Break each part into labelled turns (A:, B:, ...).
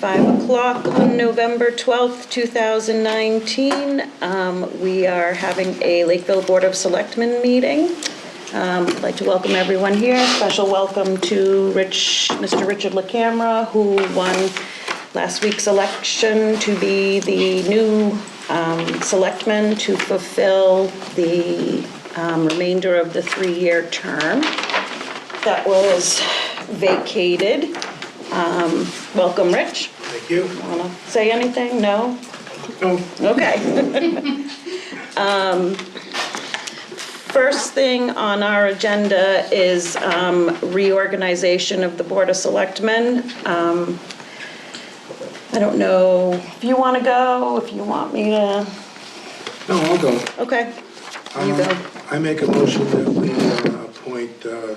A: 5 o'clock on November 12th, 2019. Um, We are having a Lakeville Board of Selectmen meeting. Um, I'd like to welcome everyone here. Special welcome to Rich, Mr. Richard LaCamera, who won last week's election to be the new um, selectman to fulfill the um, remainder of the three-year term that was vacated. Um, Welcome, Rich.
B: Thank you.
A: Wanna say anything? No?
B: No,
A: Okay. Um, First thing on our agenda is um, reorganization of the Board of Selectmen. Um, I don't know if you want to go, if you want me to,
B: no, I'll go.
A: okay. You
B: Um,
A: go.
B: I make a motion that we uh, appoint uh,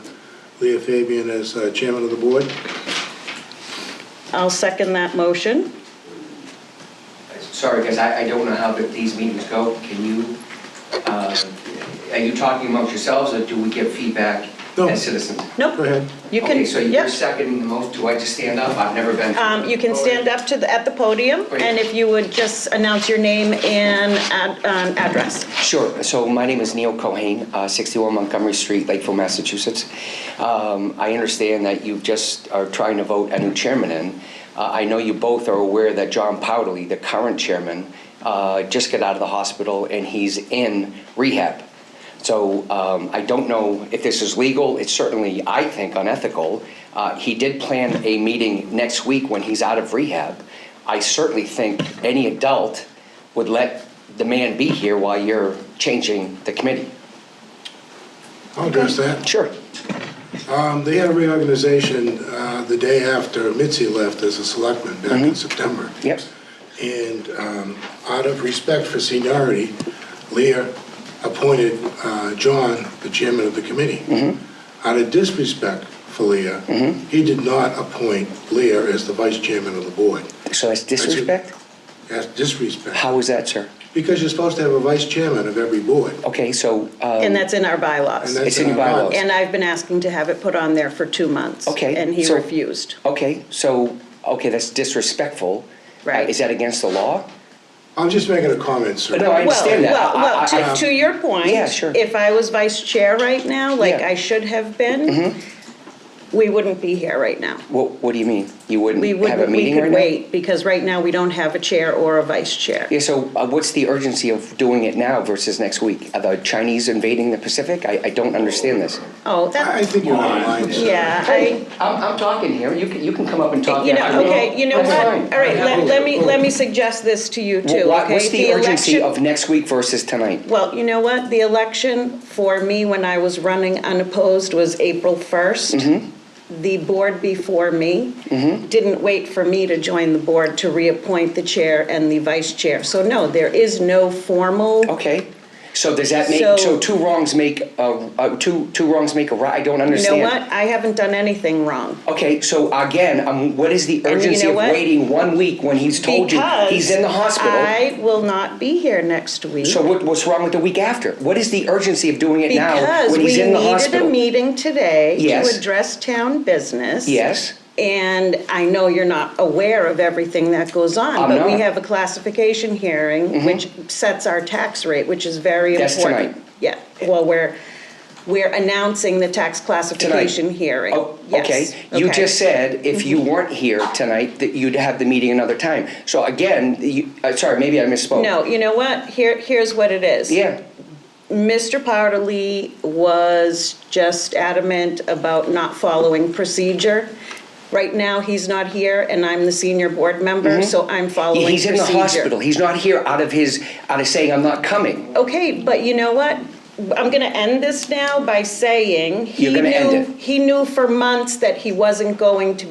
B: Leah Fabian as uh, chairman of the board.
A: I'll second that motion.
C: Sorry, guys, I, I don't know how the- these meetings go. Can you, um, are you talking amongst yourselves or do we get feedback
B: No.
C: as citizens?
B: Go
A: Nope,
B: ahead.
A: you can,
C: Okay, so you're
A: yep.
C: seconding the most, do I just stand up? I've never been.
A: Um, You can stand up to, the- at the podium, and if you would just announce your name and ad- um, address.
C: Sure, so my name is Neil Cohen, uh, 61 Montgomery Street, Lakeville, Massachusetts. Um, I understand that you just are trying to vote a new chairman in. Uh, I know you both are aware that John Powderly, the current chairman, uh, just got out of the hospital and he's in rehab. So um, I don't know if this is legal, it's certainly, I think, unethical. Uh, He did plan a meeting next week when he's out of rehab. I certainly think any adult would let the man be here while you're changing the committee.
B: I'll address that.
C: Sure.
B: Um, They had a reorganization uh, the day after Mitzi left as a selectman back
A: Mm-hmm.
B: in September.
C: Yep.
B: And um, out of respect for seniority, Leah appointed uh, John the chairman of the
A: Mm-hmm.
B: committee. Out of disrespect for Leah, he did not appoint Leah as the vice chairman of the board.
C: So that's disrespect?
B: That's disrespect.
C: How is that, sir?
B: Because you're supposed to have a vice chairman of every board.
C: Okay, so, uh,
A: And that's in our
B: and
A: bylaws.
B: that's
C: It's in your
B: our
C: bylaws.
A: And I've been asking to have it put on there for two months.
C: Okay,
A: And he
C: so-
A: refused.
C: okay, so, okay, that's disrespectful.
A: Right.
C: Uh, Is that against the law?
B: I'm just making a comment, sir.
C: No, I understand that.
A: Well, well,
C: I- I-
A: well, to, to your point.
C: Yeah, sure.
A: If I was vice chair right now, like
C: Yeah.
A: I should have been, we wouldn't be here right now.
C: What, what do you mean? You wouldn't
A: We
C: have a
A: wouldn't, we
C: meeting right now?
A: could wait, because right now we don't have a chair or a vice chair.
C: Yeah, so uh, what's the urgency of doing it now versus next week? Are the Chinese invading the Pacific? I, I don't understand this.
A: Oh,
B: I
A: that,
B: think you're out of line, sir.
A: yeah, I.
C: I'm, I'm talking here. You can, you can come up and talk.
A: You
C: after
A: know,
C: me.
A: okay, you know
C: That's
A: what,
C: fine.
A: all right, let, let me, let me suggest this to you too,
C: Wha-
A: okay?
C: What's the urgency
A: election-
C: of next week versus tonight?
A: Well, you know what, the election for me when I was running unopposed was April first.
C: Mm-hmm.
A: The board before me didn't wait for me to join the board to reappoint the chair and the vice chair. So no, there is no formal.
C: Okay, so does that make,
A: So-
C: so two wrongs make, uh, uh, two, two wrongs make a right? I don't
A: You know
C: understand.
A: what, I haven't done anything wrong.
C: Okay, so again, um, what is the
A: you
C: urgency
A: know
C: of
A: what?
C: waiting one week when he's told you
A: Because
C: he's in the hospital?
A: I will not be here next week.
C: So what, what's wrong with the week after? What is the urgency of doing it now
A: Because
C: when
A: we
C: he's in the
A: needed a
C: hospital?
A: meeting today
C: Yes.
A: to address town business.
C: Yes,
A: And I know you're not aware of everything that goes on,
C: I'm
A: but we
C: not.
A: have a classification hearing which sets our tax rate, which is very
C: That's
A: important.
C: tonight.
A: Yeah, well, we're, we're announcing the tax classification hearing.
C: Oh,
A: Yes,
C: okay. You
A: okay. Mm-hmm.
C: just said if you weren't here tonight, that you'd have the meeting another time. So again, you, uh, sorry, maybe I misspoke.
A: No, you know what? Here, here's what it is.
C: Yeah,
A: Mr. Powderly was just adamant about not following procedure. Right now, he's not here, and I'm the senior board member, so I'm following
C: Mm-hmm. he's
A: procedure.
C: in the hospital. He's not here out of his, out of saying, I'm not coming.
A: Okay, but you know what? I'm gonna end this now by saying. he
C: You're gonna end
A: knew-
C: it.
A: He knew for months that he wasn't going to